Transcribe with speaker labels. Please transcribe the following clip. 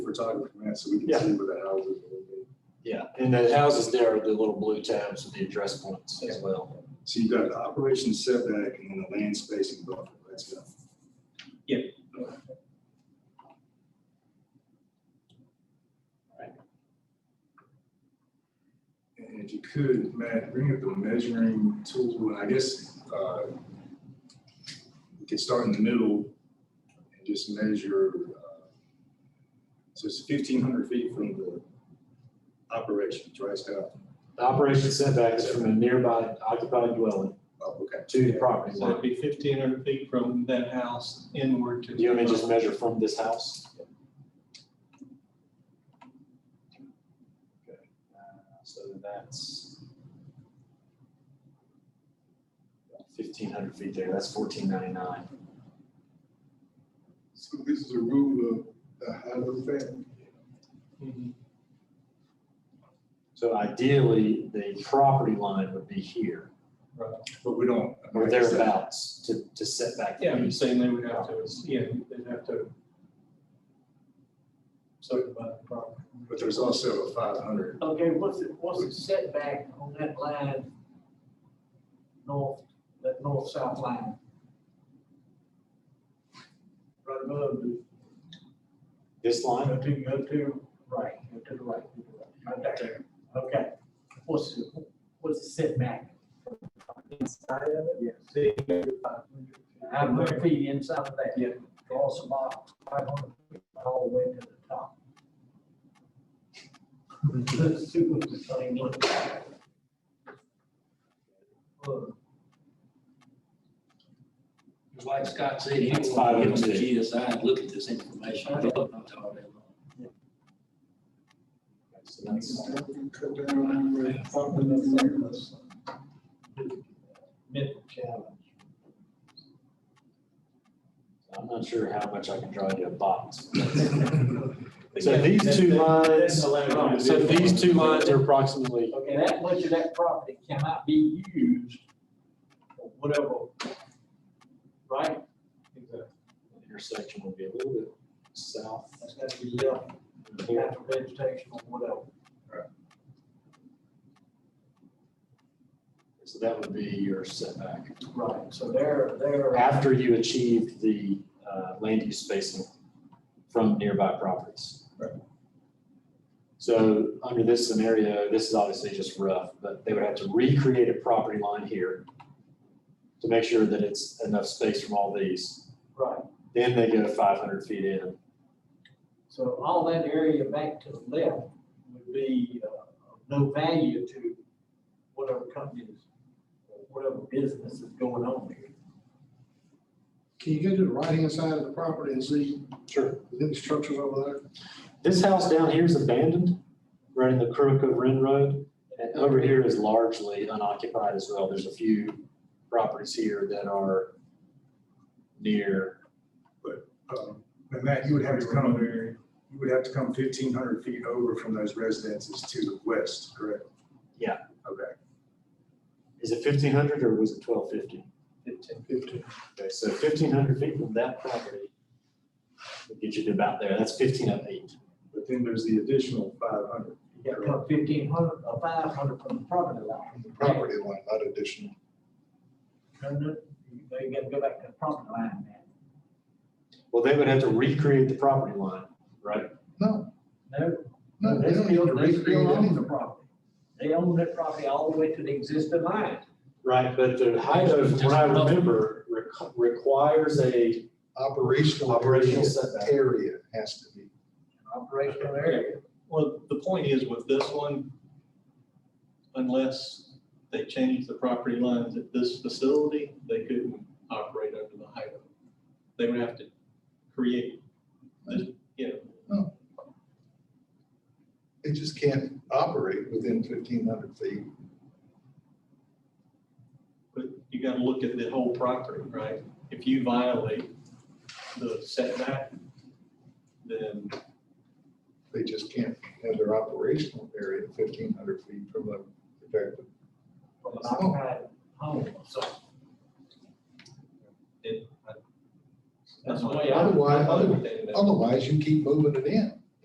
Speaker 1: photography, man, so we can
Speaker 2: Yeah.
Speaker 1: see where the houses are.
Speaker 2: Yeah, and the houses there are the little blue tabs with the address points as well.
Speaker 1: So you've got the operation setback and then the land spacing buffer, that's it. And if you could, Matt, bring up the measuring tool, and I guess, uh, we could start in the middle and just measure, uh, so it's fifteen hundred feet from the operations, right, Scott?
Speaker 2: The operation setback is from a nearby occupied dwelling
Speaker 1: Oh, okay.
Speaker 2: to the property
Speaker 3: So it'd
Speaker 2: line.
Speaker 3: be fifteen hundred feet from that house inward to.
Speaker 2: Do you want me to just measure from this house? Okay, uh, So that's fifteen hundred feet there, that's fourteen ninety-nine.
Speaker 4: So this is a rule of the Highland family.
Speaker 3: Mhm.
Speaker 2: So ideally, the property line would be here
Speaker 3: Right.
Speaker 1: But we don't.
Speaker 2: or thereabouts to, to set back. the
Speaker 3: Yeah, I'm
Speaker 2: east.
Speaker 3: saying they would have to, yeah, they'd have to. subdivide the property.
Speaker 1: But there's also a five hundred,
Speaker 5: Okay, what's the, what's the setback on that line? North, that north-south line? Right above the,
Speaker 2: This line,
Speaker 5: up to, up to, uh, right, up to the right, to the right, right there. Okay, what's, the what's the setback? Inside of it?
Speaker 3: Yeah. They go to 500.
Speaker 5: Five hundred feet inside of that.
Speaker 3: Yeah.
Speaker 5: Cross about five hundred feet all the way to the top. Let's see what the thing looks like. Uh,
Speaker 6: Because Like Scott said, he
Speaker 2: It's five oh
Speaker 6: will give
Speaker 2: and
Speaker 6: them the
Speaker 2: two.
Speaker 6: GSI and look at this information. They'll know all day long.
Speaker 2: so that's-
Speaker 4: Cut down on the property numbers.
Speaker 3: Mental challenge.
Speaker 2: I'm not sure how much I can draw into a box. So
Speaker 3: Yeah,
Speaker 2: these
Speaker 3: that-
Speaker 2: two
Speaker 3: that-
Speaker 2: lines,
Speaker 3: that's allowed.
Speaker 2: so these two lines are approximately,
Speaker 5: Okay, that much of that property cannot be used for whatever, right?
Speaker 3: Exactly.
Speaker 2: the intersection will be a little bit south.
Speaker 5: That's gotta be left,
Speaker 2: of here.
Speaker 5: after vegetation or whatever.
Speaker 2: So that would be your setback.
Speaker 5: Right, so they're, they're.
Speaker 2: After you achieve the uh, land use spacing from nearby properties.
Speaker 3: Right.
Speaker 2: So under this scenario, this is obviously just rough, but they would have to recreate a property line here to make sure that it's enough space from all these.
Speaker 5: Right,
Speaker 2: Then they go five hundred feet in.
Speaker 5: so all that area back to the left would be, uh, of no value to whatever companies, or whatever business is going on there.
Speaker 4: Can you go to the right-hand side of the property and see,
Speaker 2: Sure.
Speaker 4: is any structures over there?
Speaker 2: This house down here is abandoned, right in the crook of Ren Road. And over here is largely unoccupied as well. There's a few properties here that are near,
Speaker 1: um, and Matt, you would have to come, you would have to come fifteen hundred feet over from those residences to the west, correct?
Speaker 2: Yeah.
Speaker 1: Okay,
Speaker 2: is it fifteen hundred or was it twelve fifty?
Speaker 3: Fifteen.
Speaker 2: Okay, so fifteen hundred feet from that property would get you to about there. That's fifteen of eight.
Speaker 1: but then there's the additional five hundred.
Speaker 5: You got about fifteen hundred, or five hundred from the property line.
Speaker 4: The property line, not additional.
Speaker 5: No, no, you you gotta go back to the property line, man.
Speaker 2: Well, they would have to recreate the property line, right?
Speaker 4: No,
Speaker 5: No,
Speaker 4: no, they don't need to
Speaker 5: They
Speaker 4: recreate
Speaker 5: still own the
Speaker 4: anything.
Speaker 5: property. They own that property all the way to the existing line.
Speaker 2: Right, but the height of, what I remember, requ- requires a
Speaker 4: Operational.
Speaker 2: Operational setback.
Speaker 4: Area has to be.
Speaker 5: Operational area.
Speaker 3: Well, the point is with this one, unless they change the property lines at this facility, they couldn't operate under the highway. They would have to create, this, you know,
Speaker 4: They just can't operate within fifteen hundred feet.
Speaker 3: But you gotta look at the whole property, right? If you violate the setback, then
Speaker 4: They just can't have their operational area fifteen hundred feet from the protected.
Speaker 5: From an occupied
Speaker 3: oh,
Speaker 5: home, so.
Speaker 3: it. I-
Speaker 5: That's
Speaker 3: I'm
Speaker 5: the
Speaker 3: not-
Speaker 5: way I-
Speaker 3: I'm not
Speaker 4: Otherwise,
Speaker 3: understanding that.
Speaker 4: otherwise you keep moving it in.